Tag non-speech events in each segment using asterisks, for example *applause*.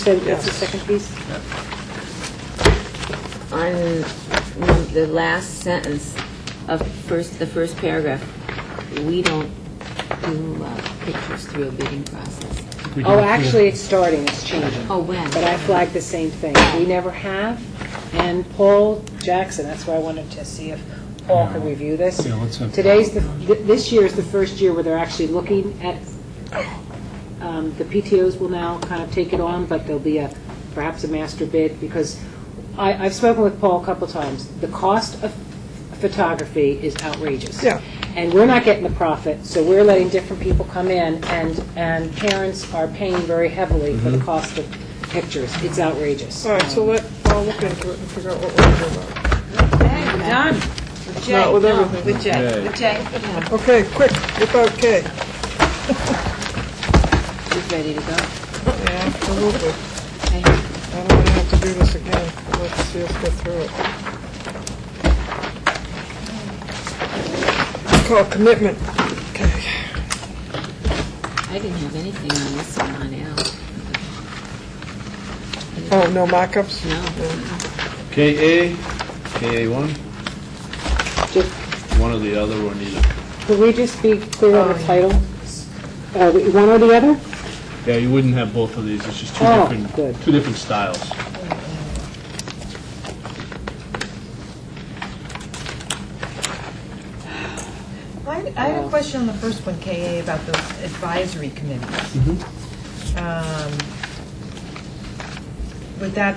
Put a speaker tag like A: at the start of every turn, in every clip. A: So that's the second piece?
B: on num- the last sentence of first, the first paragraph, we don't do uh, pictures through a bidding process.
C: We do
A: Oh,
C: it here.
A: actually, it's starting, it's changing.
B: Oh, when?
A: But I flagged the same thing. We never have. And Paul Jackson, that's why I wanted to see if Paul could review this.
C: Yeah, let's have-
A: Today's, the th- this year is the first year where they're actually looking at, um, the PTOs will now kind of take it on, but there'll be a, perhaps a master bid, because I, I've spoken with Paul a couple times. The cost of photography is outrageous.
D: Yeah.
A: And we're not getting the profit, so we're letting different people come in, and, and parents are paying very heavily for the cost of pictures. It's outrageous.
D: Mm-hmm.
A: Um,
D: All right, so let, I'll look into it and figure out what we're doing about
E: Okay, we're done. With J.
D: Not with
E: no,
D: everything.
E: With J,
F: Yay.
E: with J.
D: it. Okay, quick, without K.
B: She's ready to go.
D: Yeah, absolutely. I
B: Okay.
D: don't want to have to do this again. Let's see us get through it. It's called commitment. Okay.
B: I didn't have anything on this one on L.
D: Oh, no mock-ups?
B: No.
F: KA, KA1,
A: Just-
F: one or the other or neither.
A: Could we just be clear
D: Oh,
A: on the title? Uh, One or the other?
F: Yeah, you wouldn't have both of these, it's just two
A: Oh,
F: different,
A: good.
F: two different styles.
E: I I had a question on the first one, KA, about those advisory committees.
F: Mm-hmm.
E: Um, Would that,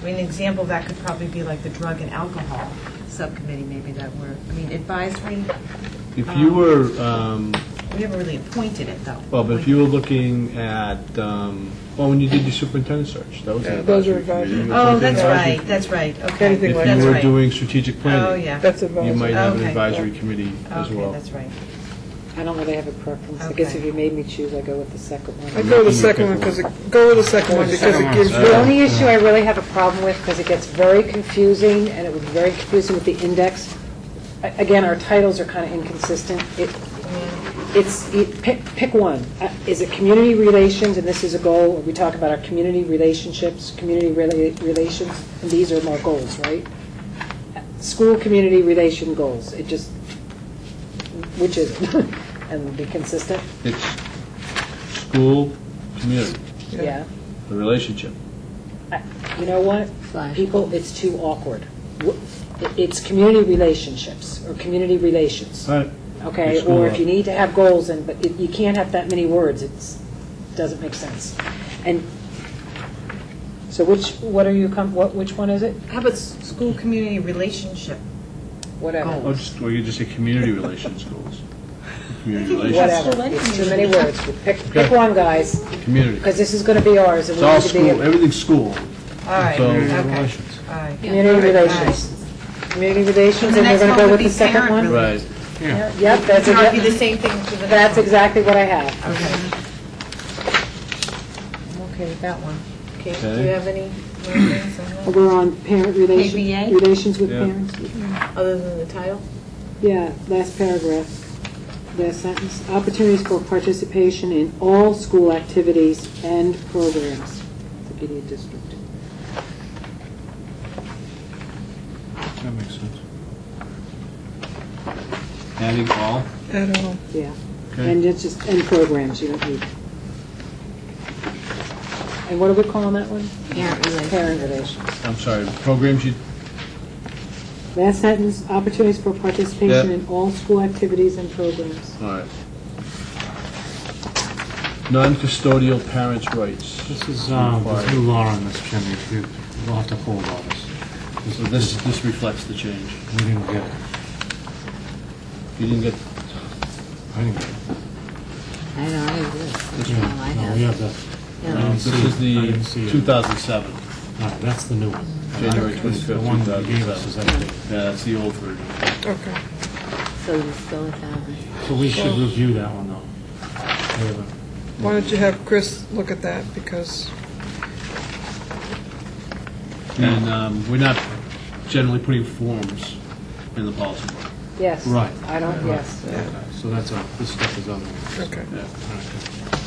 E: I mean, an example of that could probably be like the drug and alcohol subcommittee, maybe that were, I mean, advisory,
F: If you were, um,
E: we never really appointed it, though.
F: well, but if you were looking at, um, well, when you did your superintendent search, that was an
D: Yeah, those are
F: advisory committee.
D: advisory.
F: It was
E: Oh,
F: an
E: that's
F: advisory-
E: right, that's right,
D: Anything
E: okay.
D: like
F: If
E: That's
F: you were
E: right.
F: doing strategic
E: Oh,
F: planning,
E: yeah.
D: That's
F: you might
D: advisory.
F: have an
E: Okay.
F: advisory committee as well.
E: Okay, that's right.
A: I don't really have a preference. I guess if you made me choose, I'd go with the second one.
D: I go with the second one because it, go with the second one because it gives
A: The
D: you,
A: only issue I really have a problem with, because it gets very confusing, and it was very confusing with the index, A- again, our titles are kind of inconsistent. It, it's, you pick, pick one. Uh, Is it community relations, and this is a goal, we talk about our community relationships, community rela- relations, and these are more goals, right? Uh, School community relation goals, it just, which is, it? *laughs* and be consistent,
F: It's school, community,
A: yeah.
F: the relationship.
A: You know what?
B: Flash.
A: People, it's too awkward. W- It's community relationships, or community relations,
F: All right,
A: okay?
F: It's cool.
A: Or if you need to have goals, and, but you- you can't have that many words, it's, doesn't make sense. And, so which, what are you, com- what, which one is it?
E: How about s- school community relationship?
A: Whatever.
F: or Oh, just, or you just say community relations goals. Community
A: *laughs*
F: relations,
A: Whatever. It's too many words. Pick, pick
F: Okay.
A: one, guys,
F: community.
A: because this is going to be ours, and
F: It's
A: we
F: all
A: need to be.
F: school, everything's school.
E: All right,
F: So,
E: okay,
F: relations.
E: all right.
A: Community relations. Community relations, and we're going to go with the second one?
E: And the next one would be parent
F: Right.
A: Yep, that's,
E: It might be the
A: exa-
E: same thing for the.
A: that's exactly what I have.
E: Okay. I'm okay with that one. Okay, do you
F: Okay.
E: have any more things on that,
A: We're on parent relation,
E: ABA?
A: relations with
F: Yeah.
A: parents.
E: other than the title?
A: Yeah, last paragraph, last sentence. Opportunities for participation in all school activities and programs, the PD district.
F: That makes sense. Adding all,
D: I don't know.
A: Yeah, and
F: okay.
A: it's just, and programs, you don't need. And what are we calling that one?
B: Parent relations.
A: Parent relations.
F: I'm sorry, programs you,
A: Last sentence, opportunities for participation
F: Yeah.
A: in all school activities and programs.
F: all right. Non-custodial parents' rights.
C: This is, um, there's new law on this, Jimmy, if you, we'll have to hold all this.
F: So this, this reflects the change.
C: We didn't get, it.
F: You didn't get,
C: I didn't get. it.
B: I don't have this. That's all I
C: No, we
B: have.
C: have the, um,
B: Yeah.
C: didn't
F: this
C: see
F: is
C: it. I didn't see
F: the
C: it.
F: 2007.
C: all right, that's the new one.
F: January
C: This is
F: 25th,
C: The one that you gave us is
F: 2007.
C: updated.
F: Yeah, that's the old version.
D: Okay.
B: So just go with that one.
C: So we should review that one, though. We have a-
D: Why don't you have Chris look at that because,
C: Hmm.
F: And um, we're not generally putting forms in the policy book.
A: Yes.
C: Right.
A: I don't, yes.
C: So that's, our- uh, this stuff is other ones.
D: okay.
F: Yeah.
C: All right.